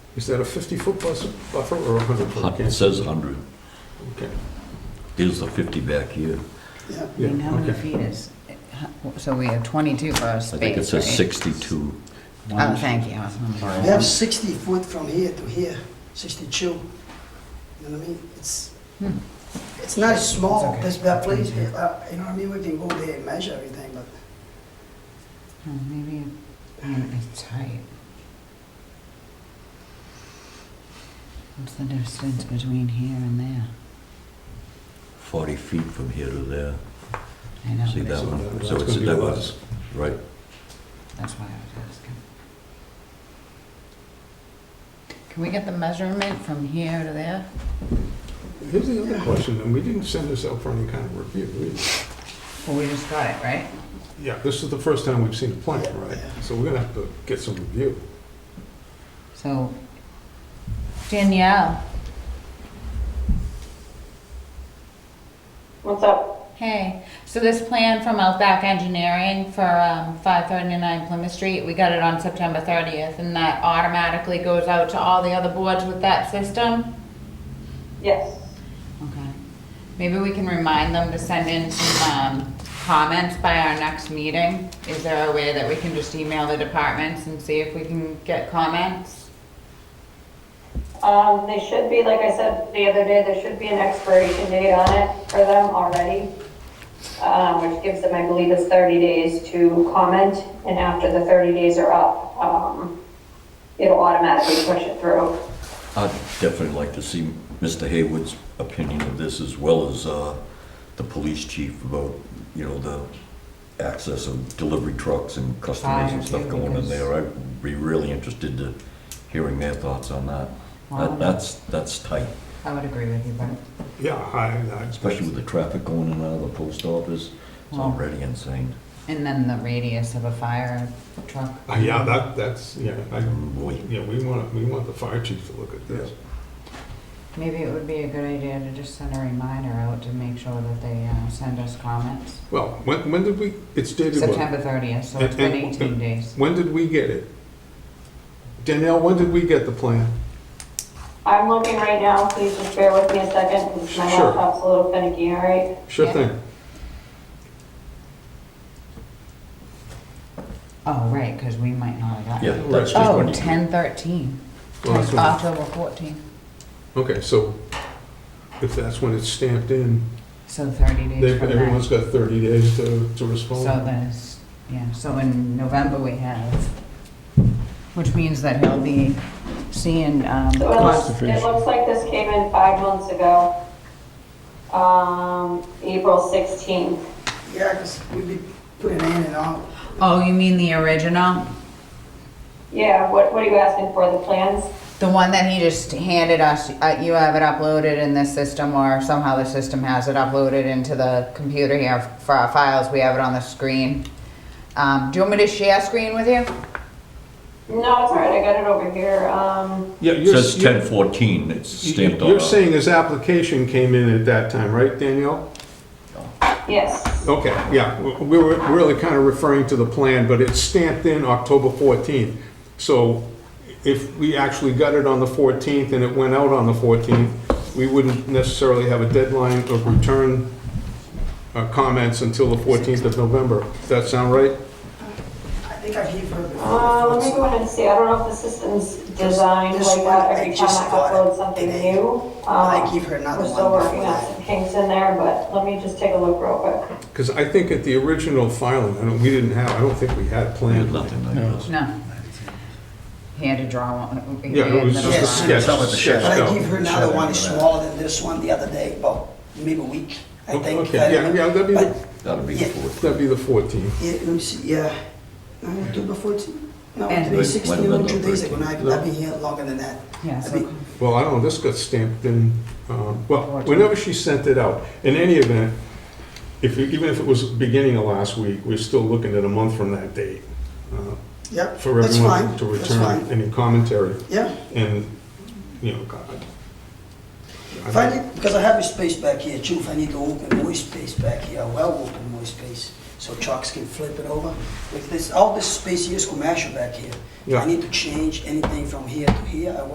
Is that a 50-foot buffer or a 100-foot? It says 100. Okay. Here's the 50 back here. Yeah. Yeah, And how many okay. feet is, so we have 22 for our space, I think it says right? 62. Oh, thank you. I was wondering. We have 60 foot from here to here, 62. You know what I mean? It's, Hmm. it's not small, It's okay. Mm-hmm. this, that place, uh, you know what I mean? We can go there and measure everything, but Oh, Maybe, mm, it's tight. What's the distance between here and there? 40 feet from here to there, I know, See but that it's- one? that's So it's gonna a be diverse. right? that's why I was asking. Can we get the measurement from here to there? Here's the other question, and we didn't send this out for any kind of review. we- Well, we just got it, right? Yeah, this is the first time we've seen a plan, right? So we're gonna have to get some review. So Danielle, What's up? hey, so this plan from Outback Engineering for um, 539 Plymouth Street, we got it on September 30th, and that automatically goes out to all the other boards with that system? Yes. Okay. Maybe we can remind them to send in some um, comments by our next meeting. Is there a way that we can just email the departments and see if we can get comments? Um, they should be, like I said the other day, there should be an expiration date on it for them already, um, which gives them, I believe, it's 30 days to comment, and after the 30 days are up, um, it'll automatically push it through. I'd definitely like to see Mr. Haywood's opinion of this as well as uh, the police chief about, you know, the access of delivery trucks and customers and Fire, stuff too, going in because- there. I'd be really interested to hearing their thoughts on that. Wow. That- That's, that's tight, I would agree with you, but Yeah, I, especially with the traffic going in and out of the post office. It's Wow. already insane. And then the radius of a fire truck. I, Uh, yeah, that, that's, yeah, I, Boy. yeah, we want, we want the fire chief to look at this. Maybe it would be a good idea to just send a reminder out to make sure that they uh, send us comments. Well, when, when did we, it's dated what? September 30th, so it's been And- and- 18 days. When did we get it? Danielle, when did we get the plan? I'm looking right now, please just bear with me a second, 'cause my Sure. laptop's a little finicky, all right? Sure Yeah. thing. Oh, right, because we might not have gotten Yeah, it. that's just Oh, when you. 10/13, Well, that's when- October 14th, Okay, so if that's when it's stamped in, so 30 they- days from everyone's got that. 30 days to, to So respond. that's, yeah, so in November we have, which means that he'll be seeing, um, So uh, it cons- looks, it looks like this came in five months ago, um, April 16th. yeah, 'cause we'd be putting in and out. oh, you mean the original? Yeah, what, what are you asking for, the plans? The one that he just handed us, uh, you have it uploaded in this system, or somehow the system has it uploaded into the computer here for our files. We have it on the screen. Um, do you want me to share screen with you? No, it's all right, I got it over here. Um, Yeah, It you're- says you're- 1014, it's stamped on. You're it. saying his application came in at that time, right, Danielle? yes, Okay, yeah, we were really kind of referring to the plan, but it's stamped in October 14th. So if we actually got it on the 14th and it went out on the 14th, we wouldn't necessarily have a deadline of return uh, comments until the 14th of November. Does that sound right? I think I've heard before. uh, let me go ahead and see, I don't know if the system's designed This like that one, I every time just I got it. upload something It ain't. new. I Um, give her another We're one. still working before on that. some kinks in there, but let me just take a look real quick. Because I think at the original filing, I don't, we didn't have, I don't think we had We had planned. nothing like this. No. He had to draw one. he Yeah, it had was little just a sketch. lines. Some of the sketch But I out. gave her another one smaller than this one the other day, about maybe a week, I Okay, think. yeah, yeah, that'd be- But, That'll be the Yeah. 14. That'd be the 14th. yeah, let me see, yeah, no, October 14, no, today And- Wait, might have 16, been no, two days ago, 13. I've I've been here longer than that. Yeah, I so mean, Well, I don't know, this got stamped in, um, well, whenever she sent it out. In any event, if, you- even if it was beginning of last week, we're still looking at a month from that date uh, Yep, for that's everyone fine, to that's return fine, any commentary. yeah. And, you know, God. I- If I need, because I have a space back here too, if I need to open more space back here, I will open more space, so trucks can flip it over. Like this, all this space here is commercial back here. If Yeah. I need to change anything from here to here, I will